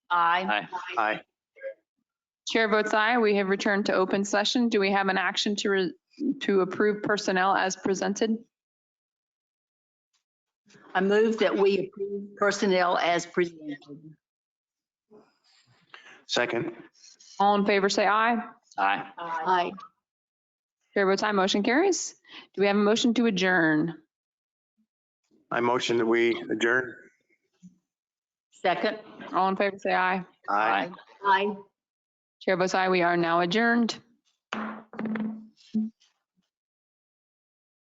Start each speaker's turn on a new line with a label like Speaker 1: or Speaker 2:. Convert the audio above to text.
Speaker 1: Aye.
Speaker 2: Aye. Aye.
Speaker 3: Chair votes aye. We have returned to open session. Do we have an action to, re- to approve personnel as presented?
Speaker 1: I move that we approve personnel as presented.
Speaker 2: Second.
Speaker 3: All in favor, say aye.
Speaker 2: Aye.
Speaker 1: Aye.
Speaker 3: Chair votes aye. Motion carries. Do we have a motion to adjourn?
Speaker 2: I motion that we adjourn.
Speaker 1: Second?
Speaker 3: All in favor, say aye.
Speaker 1: Aye.
Speaker 3: Chair votes aye. We are now adjourned.